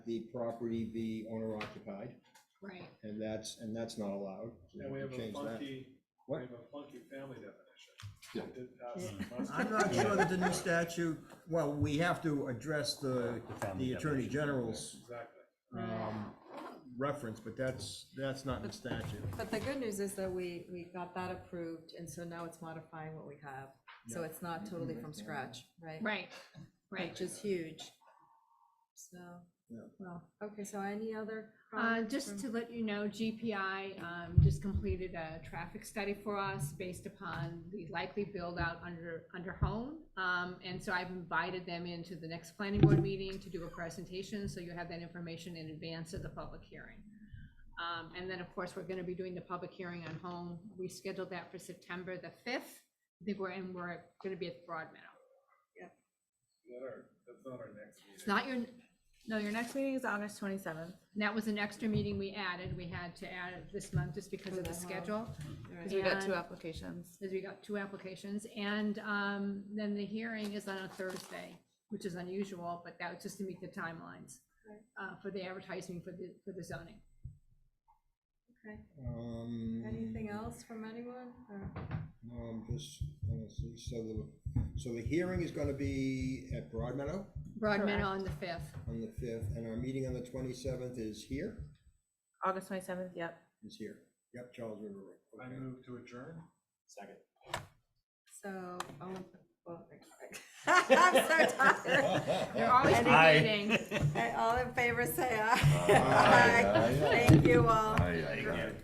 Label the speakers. Speaker 1: the property be owner occupied,
Speaker 2: Right.
Speaker 1: and that's, and that's not allowed. so
Speaker 3: And we have a
Speaker 1: change that.
Speaker 3: funky, we
Speaker 1: What?
Speaker 3: have a funky family definition.
Speaker 1: Yeah.
Speaker 3: It didn't pass the muster.
Speaker 4: I'm not sure that the new statute, well, we have to address the,
Speaker 5: The family
Speaker 4: the Attorney
Speaker 5: definition.
Speaker 4: General's
Speaker 3: Exactly.
Speaker 4: um, reference, but that's, that's not in the statute.
Speaker 2: But the good news is that we, we got that approved, and so now it's modifying what we have. So it's not totally from scratch, right?
Speaker 6: Right, right.
Speaker 2: Which is huge. So,
Speaker 4: Yeah.
Speaker 2: well, okay, so any other?
Speaker 6: Uh,
Speaker 2: comments
Speaker 6: just
Speaker 2: from-
Speaker 6: to let you know, GPI, um, just completed a traffic study for us based upon the likely build-out under, under home. Um, and so I've invited them into the next planning board meeting to do a presentation, so you have that information in advance of the public hearing. Um, and then, of course, we're gonna be doing the public hearing on home. We scheduled that for September the fifth. I think we're, and we're gonna be at Broadmeadow.
Speaker 3: Not our- That's not our next meeting.
Speaker 6: It's not your, no, your next
Speaker 7: Next meeting is August twenty-seventh.
Speaker 6: And That was an extra meeting we added. We had to add it this month just because of the schedule,
Speaker 7: Because we got two
Speaker 6: And-
Speaker 7: applications.
Speaker 6: because we got two applications. And um, then the hearing is on a Thursday, which is unusual, but that was just to meet the timelines uh, for the advertising for the, for the zoning.
Speaker 2: Okay.
Speaker 1: Um,
Speaker 2: Anything else from anyone? or-
Speaker 1: No, I'm just, let to see, so the, so the hearing is gonna be at Broadmeadow
Speaker 6: Broadman on the 5th.
Speaker 1: on the fifth, and our meeting on the twenty-seventh is here,
Speaker 7: August twenty-seventh, yep.
Speaker 1: is here. Yep, Charles River Road.
Speaker 3: I
Speaker 1: okay.
Speaker 3: move to adjourn.
Speaker 5: Second.
Speaker 2: So, oh, well, I'm so tired.
Speaker 6: They're always
Speaker 5: Aye.
Speaker 6: debating.
Speaker 2: Okay, All in favor, say aye.
Speaker 8: Aye, aye, aye.
Speaker 2: Thank you all.
Speaker 8: Aye, aye, aye.